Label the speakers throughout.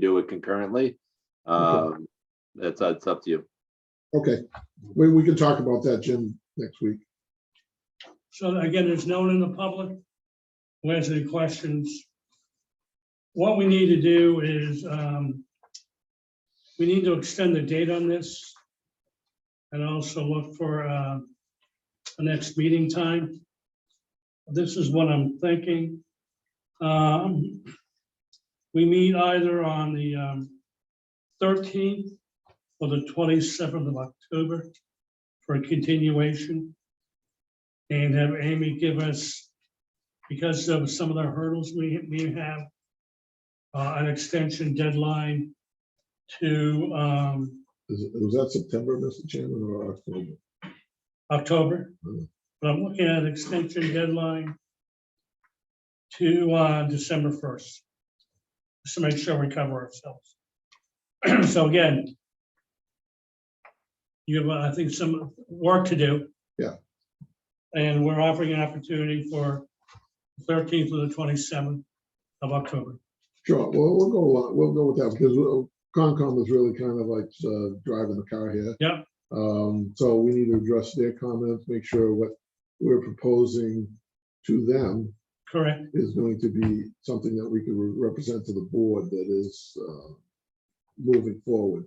Speaker 1: do it concurrently. Um, that's, that's up to you.
Speaker 2: Okay, we, we can talk about that, Jim, next week.
Speaker 3: So again, it's known in the public. Who has any questions? What we need to do is, um, we need to extend the date on this. And also look for, uh, the next meeting time. This is what I'm thinking. Um, we meet either on the, um, thirteenth or the twenty-seventh of October for a continuation and have Amy give us, because of some of the hurdles we, we have, uh, an extension deadline to, um,
Speaker 2: Is, it- was that September, Mr. Chairman, or October?
Speaker 3: October.
Speaker 2: Hmm.
Speaker 3: But I'm looking at an extension deadline to, uh, December first, just to make sure we cover ourselves. So again, you have, uh, I think, some work to do.
Speaker 2: Yeah.
Speaker 3: And we're offering an opportunity for thirteenth to the twenty-seventh of October.
Speaker 2: Sure, well, we'll go, along- we'll go with that, because uh, Concom is really kind of like uh, driving the car here.
Speaker 3: Yeah.
Speaker 2: Um, so we need to address their comments, make sure what we're proposing to them
Speaker 3: Correct,
Speaker 2: is going to be something that we can re- represent to the board that is uh, moving forward.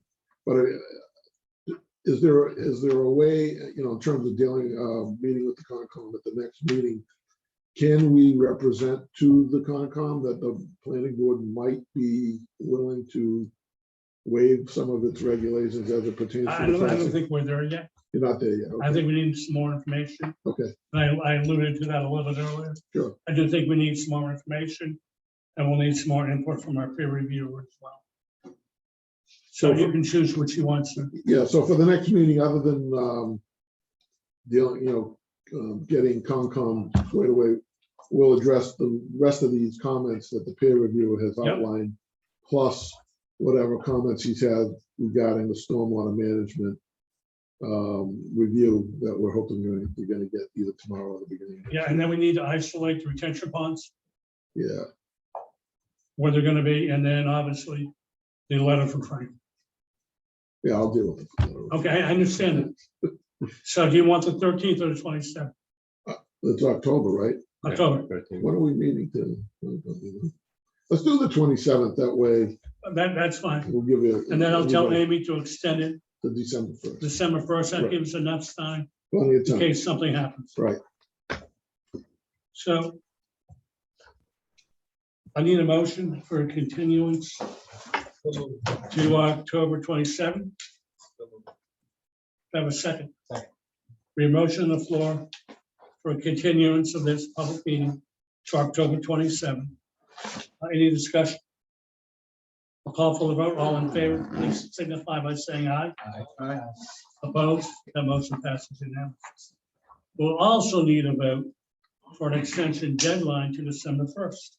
Speaker 2: But uh, is there, is there a way, you know, in terms of dealing, uh, meeting with the Concom at the next meeting, can we represent to the Concom that the planning board might be willing to waive some of its regulations as it pertains
Speaker 3: I I
Speaker 2: to the
Speaker 3: don't, I don't
Speaker 2: classic?
Speaker 3: think we're there yet,
Speaker 2: You're not there yet. okay.
Speaker 3: I think we need some more information.
Speaker 2: Okay,
Speaker 3: I, I alluded to that a little bit earlier.
Speaker 2: Sure.
Speaker 3: I do think we need some more information and we'll need some more input from our peer reviewer as well. So you can choose what you want to.
Speaker 2: yeah, so for the next meeting, other than, um, dealing, you know, um, getting Concom squared away, we'll address the rest of these comments that the peer reviewer has
Speaker 3: Yep.
Speaker 2: outlined, plus whatever comments he's had regarding the stormwater management um, review that we're hoping we're- we're gonna get either tomorrow or the beginning.
Speaker 3: Yeah, and then we need to isolate the retention ponds,
Speaker 2: Yeah,
Speaker 3: where they're gonna be, and then obviously the letter from Frank.
Speaker 2: yeah, I'll deal with it.
Speaker 3: Okay, I understand it. So do you want the thirteenth or the twenty-seventh,
Speaker 2: It's October, right?
Speaker 3: October?
Speaker 2: When are we meeting to? Let's do the twenty-seventh, that way
Speaker 3: That, that's fine.
Speaker 2: we'll give you.
Speaker 3: And then I'll tell
Speaker 2: everybody
Speaker 3: Amy to extend it
Speaker 2: The December first.
Speaker 3: December first. That
Speaker 2: Right.
Speaker 3: gives enough time
Speaker 2: Plenty of
Speaker 3: in
Speaker 2: time,
Speaker 3: case something happens.
Speaker 2: right.
Speaker 3: So I need a motion for a continuance to October 27. Have a second. We have a motion on the floor for a continuance of this public meeting to October 27. Uh, Any discussion? A call for the vote, all in favor, please signify by saying aye. Aye. Opposed, that motion passes unanimously. We'll also need a vote for an extension deadline to December first.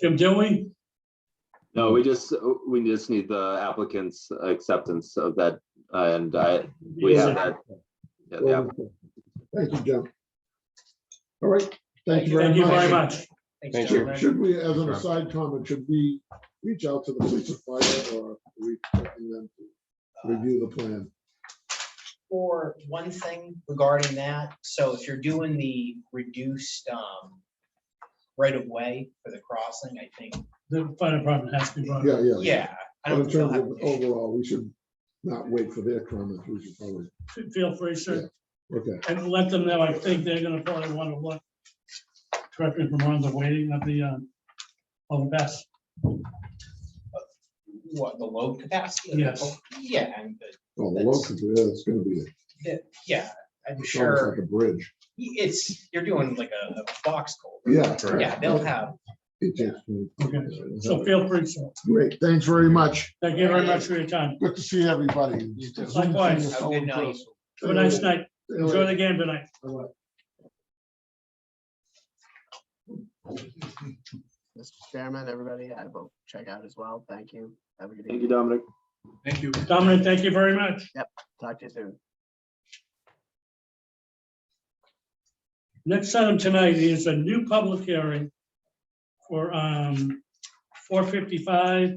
Speaker 3: Jim, do we?
Speaker 1: No, we just, we just need the applicant's acceptance of that, and I, we have that. Yeah, the app-
Speaker 2: Wonderful. Thank you, John. All right, thank you
Speaker 3: Thank
Speaker 2: very
Speaker 3: you very
Speaker 2: much.
Speaker 3: much.
Speaker 4: Thanks,
Speaker 2: Should-
Speaker 4: gentlemen.
Speaker 2: Should we, as an aside comment, should we reach out to the police or fire or are we expecting them to review the plan?
Speaker 4: For one thing regarding that, so if you're doing the reduced um right of way for the crossing, I think,
Speaker 3: The fire department has to be brought. up.
Speaker 2: Yeah, yeah.
Speaker 4: yeah.
Speaker 2: But
Speaker 4: I don't
Speaker 2: in
Speaker 4: think they'll
Speaker 2: terms
Speaker 4: have
Speaker 2: of
Speaker 4: an issue.
Speaker 2: overall, we should not wait for their comments, we should probably,
Speaker 3: F- Feel free, sir,
Speaker 2: okay,
Speaker 3: and let them know, I think they're gonna probably want to look. Correct me if I'm wrong, the waiting of the, um, of the best.
Speaker 4: What, the load capacity?
Speaker 3: Yes.
Speaker 4: Yeah, and the-
Speaker 2: well, the
Speaker 4: That's-
Speaker 2: locals, yeah, it's gonna be,
Speaker 4: yeah, I'm
Speaker 2: it's almost like
Speaker 4: sure
Speaker 2: a bridge.
Speaker 4: it's, you're doing like a a box culvert.
Speaker 2: Yeah.
Speaker 4: Yeah, they'll have,
Speaker 2: It takes me-
Speaker 3: Okay, so feel free, sir.
Speaker 2: Great, thanks very much.
Speaker 3: Thank you very much for your time.
Speaker 2: Good to see everybody.
Speaker 3: Likewise.
Speaker 4: Have a good night.
Speaker 3: Have a nice night. Enjoy the game tonight.
Speaker 5: Mr. Chairman, everybody, I will check out as well. Thank you. Have a good
Speaker 1: Thank you,
Speaker 5: evening.
Speaker 1: Dominic.
Speaker 3: Dominic, thank you very much.
Speaker 5: Talk to you soon.
Speaker 3: Next item tonight is a new public hearing for, um, four fifty-five